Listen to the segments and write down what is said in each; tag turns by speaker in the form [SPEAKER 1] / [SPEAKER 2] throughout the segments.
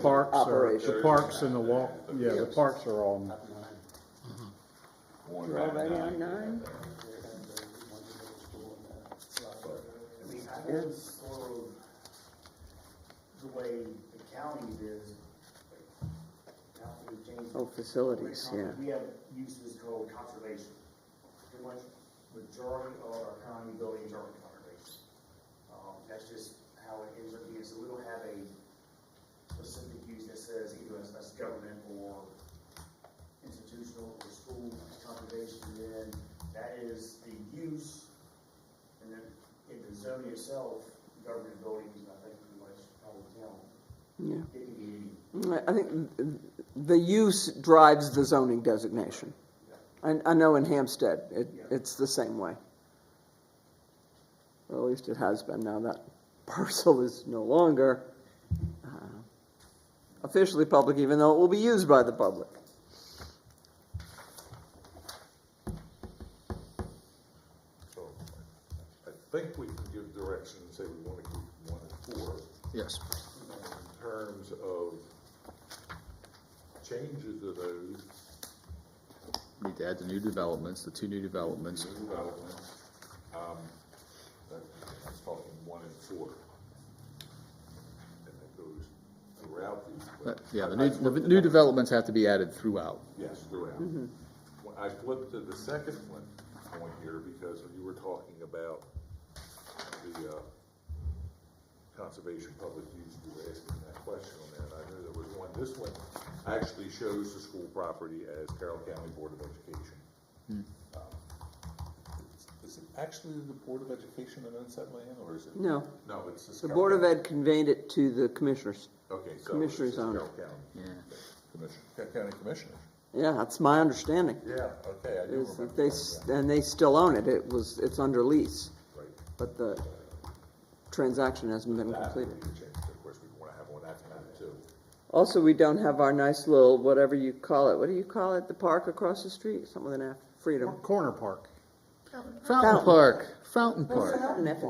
[SPEAKER 1] parks are, the
[SPEAKER 2] Operation.
[SPEAKER 1] parks and the walk, yeah, the parks are on,
[SPEAKER 2] One right
[SPEAKER 3] Already on
[SPEAKER 2] now.
[SPEAKER 3] nine?
[SPEAKER 4] I mean, I would slow the way the county is. Now we change.
[SPEAKER 3] Oh, facilities, yeah.
[SPEAKER 4] We have uses called conservation. Pretty much majority of our county buildings are conservation. Um, that's just how it ends up being, so we don't have a specific use that says either as, as government or institutional or school conservation, then that is the use. And then in the zone itself, government buildings, I think pretty much all the town,
[SPEAKER 3] Yeah.
[SPEAKER 4] it can be any.
[SPEAKER 3] I- I think th- the use drives the zoning designation. I, I know in Hampstead, it, it's the same way. Or at least it has been, now that parcel is no longer uh, officially public, even though it will be used by the public.
[SPEAKER 5] So I think we can give direction and say we want to keep one and four
[SPEAKER 6] Yes.
[SPEAKER 5] in terms of changes of those
[SPEAKER 6] Need to add the new developments, the two new developments.
[SPEAKER 5] new developments. Um, that- that's talking one and four. And that goes throughout these. but
[SPEAKER 6] But, Uh, yeah,
[SPEAKER 5] I-
[SPEAKER 6] the
[SPEAKER 5] I
[SPEAKER 6] new,
[SPEAKER 5] flipped
[SPEAKER 6] the
[SPEAKER 5] it
[SPEAKER 6] new
[SPEAKER 5] up.
[SPEAKER 6] developments have to be added throughout.
[SPEAKER 5] Yes, throughout.
[SPEAKER 3] Mm-hmm.
[SPEAKER 5] When I flipped to the second one, point here, because you were talking about the, uh, conservation public use, you were asking that question on there, and I knew there was one. This one actually shows the school property as Carroll County Board of Education.
[SPEAKER 3] Hmm.
[SPEAKER 5] Um, Is it actually the Board of Education that owns that land, or is it?
[SPEAKER 3] No,
[SPEAKER 5] No, it's just.
[SPEAKER 3] the
[SPEAKER 5] Carroll
[SPEAKER 3] Board of
[SPEAKER 5] County.
[SPEAKER 3] Ed conveyed it to the commissioners.
[SPEAKER 5] Okay, so it's
[SPEAKER 3] Commissioners
[SPEAKER 5] just
[SPEAKER 3] own it.
[SPEAKER 5] Carroll County.
[SPEAKER 6] Yeah.
[SPEAKER 5] Commission, Carroll County Commissioners.
[SPEAKER 3] Yeah, that's my understanding.
[SPEAKER 5] Yeah, okay, I do
[SPEAKER 3] Is
[SPEAKER 5] remember.
[SPEAKER 3] that they, s- and they still own it, it was, it's under lease,
[SPEAKER 5] Right.
[SPEAKER 3] but the transaction hasn't been
[SPEAKER 5] That would
[SPEAKER 3] completed.
[SPEAKER 5] be the change. Of course, we wanna have one that's added too.
[SPEAKER 3] Also, we don't have our nice little, whatever you call it, what do you call it, the park across the street, something with an F, Freedom.
[SPEAKER 1] Corner Park.
[SPEAKER 6] Fountain Park, Fountain Park,
[SPEAKER 1] That's right,
[SPEAKER 6] Fountain
[SPEAKER 1] Fountain Park.
[SPEAKER 6] Park,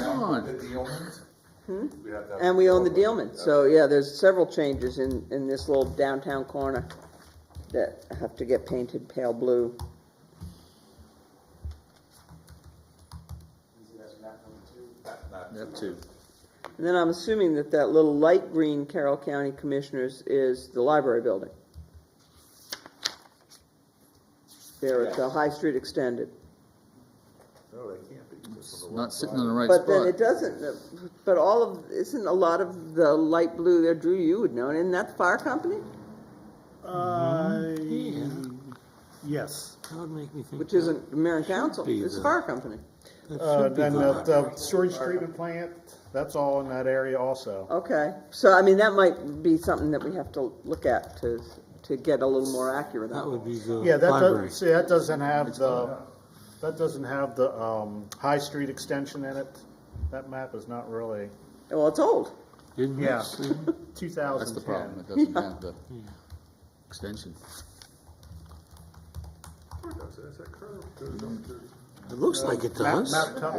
[SPEAKER 6] Oh, come on.
[SPEAKER 5] The Dealmans? We have to have
[SPEAKER 3] Hmm? And we own the
[SPEAKER 5] Dealman.
[SPEAKER 3] Dealman, so yeah, there's several changes in, in this little downtown corner that have to get painted pale blue.
[SPEAKER 4] Is it as map number two?
[SPEAKER 5] Not- not
[SPEAKER 6] That too.
[SPEAKER 3] And then I'm assuming that that little light green Carroll County Commissioners is the library building. There at the High Street extended.
[SPEAKER 5] No, they can't be. because of the
[SPEAKER 6] Not
[SPEAKER 5] wrong
[SPEAKER 6] sitting
[SPEAKER 5] side.
[SPEAKER 6] on the right
[SPEAKER 3] But then it
[SPEAKER 6] spot.
[SPEAKER 3] doesn't, but all of, isn't a lot of the light blue there, Drew, you would know, and isn't that the fire company?
[SPEAKER 6] Mm-hmm.
[SPEAKER 1] Uh, yes.
[SPEAKER 7] That would make me think.
[SPEAKER 3] Which isn't the mayor and council, it's the fire company.
[SPEAKER 1] Uh, then the, the sewage treatment plant, that's all in that area also.
[SPEAKER 3] Okay, so I mean, that might be something that we have to look at to, to get a little more accurate
[SPEAKER 7] That
[SPEAKER 3] on.
[SPEAKER 7] would be the
[SPEAKER 1] Yeah, that
[SPEAKER 7] library.
[SPEAKER 1] does, see, that doesn't have the, that doesn't have the, um, High Street extension in it. That map is not really,
[SPEAKER 3] Well, it's old,
[SPEAKER 7] Didn't we
[SPEAKER 1] Yeah.
[SPEAKER 7] see?
[SPEAKER 1] two
[SPEAKER 6] That's the
[SPEAKER 1] thousand
[SPEAKER 6] problem,
[SPEAKER 1] ten.
[SPEAKER 6] it doesn't have the extension.
[SPEAKER 5] Where does it- is that curve? Goes up to-
[SPEAKER 7] It looks like it does.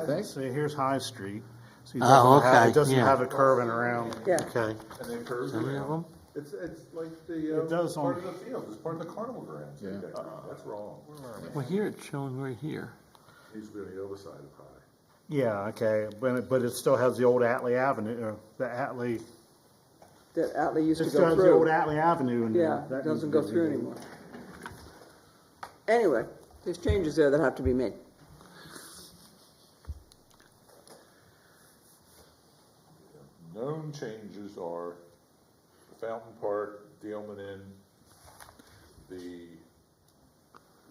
[SPEAKER 6] think.
[SPEAKER 1] See, here's High Street. See, it
[SPEAKER 7] Oh,
[SPEAKER 1] doesn't have-
[SPEAKER 7] okay,
[SPEAKER 1] It doesn't
[SPEAKER 7] yeah.
[SPEAKER 1] have it curving around.
[SPEAKER 3] yeah.
[SPEAKER 7] Okay,
[SPEAKER 5] And then curves
[SPEAKER 7] how many of them?
[SPEAKER 5] around. It's, it's like the,
[SPEAKER 1] It does
[SPEAKER 5] uh, part
[SPEAKER 1] on-
[SPEAKER 5] of the field, it's part of the carnival grounds.
[SPEAKER 6] Yeah.
[SPEAKER 5] That's wrong.
[SPEAKER 7] Well, here it's showing right here.
[SPEAKER 5] Needs to be on the other side of high.
[SPEAKER 1] Yeah, okay, but, it- but it still has the old Atlee Avenue, or the Atlee,
[SPEAKER 3] that Atlee used
[SPEAKER 1] it
[SPEAKER 3] to
[SPEAKER 1] still
[SPEAKER 3] go
[SPEAKER 1] has the old
[SPEAKER 3] through.
[SPEAKER 1] Atlee Avenue in there.
[SPEAKER 3] Yeah,
[SPEAKER 1] That needs
[SPEAKER 3] it doesn't
[SPEAKER 1] to
[SPEAKER 3] go
[SPEAKER 1] be
[SPEAKER 3] through
[SPEAKER 1] removed.
[SPEAKER 3] anymore. Anyway, there's changes there that have to be made.
[SPEAKER 5] Known changes are the Fountain Park, Dealman Inn, the,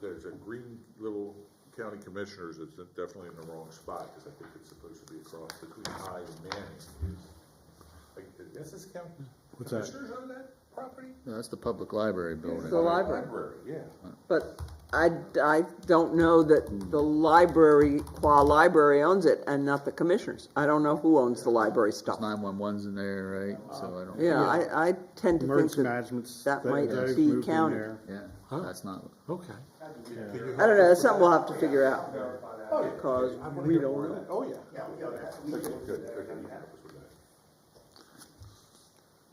[SPEAKER 5] there's a green little county commissioners that's definitely in the wrong spot, because I think it's supposed to be across between High and Manning. Like, is this county
[SPEAKER 1] What's that?
[SPEAKER 5] commissioners own that property?
[SPEAKER 6] No, That's the public library building.
[SPEAKER 3] The library.
[SPEAKER 5] Library, yeah.
[SPEAKER 3] But I, I don't know that the library, qua library owns it and not the commissioners. I don't know who owns the library stuff.
[SPEAKER 6] Nine-one-one's in there, right, so I don't,
[SPEAKER 3] Yeah, I, I tend to think
[SPEAKER 1] Emergency
[SPEAKER 3] that,
[SPEAKER 1] management's.
[SPEAKER 3] that
[SPEAKER 1] they-
[SPEAKER 3] might
[SPEAKER 1] they've
[SPEAKER 3] be
[SPEAKER 1] moved in
[SPEAKER 3] counted.
[SPEAKER 1] there.
[SPEAKER 6] yeah,
[SPEAKER 7] Huh?
[SPEAKER 6] that's not,
[SPEAKER 7] Okay.
[SPEAKER 3] I don't know, that's something we'll have to figure out.
[SPEAKER 5] Oh, yeah.
[SPEAKER 3] Cause
[SPEAKER 5] I wanna
[SPEAKER 3] we
[SPEAKER 5] hear
[SPEAKER 3] don't
[SPEAKER 5] more of
[SPEAKER 3] know.
[SPEAKER 5] that. Oh, yeah.
[SPEAKER 4] Yeah, yeah, that's, we
[SPEAKER 5] Okay,
[SPEAKER 4] can,
[SPEAKER 5] good, okay, you have it.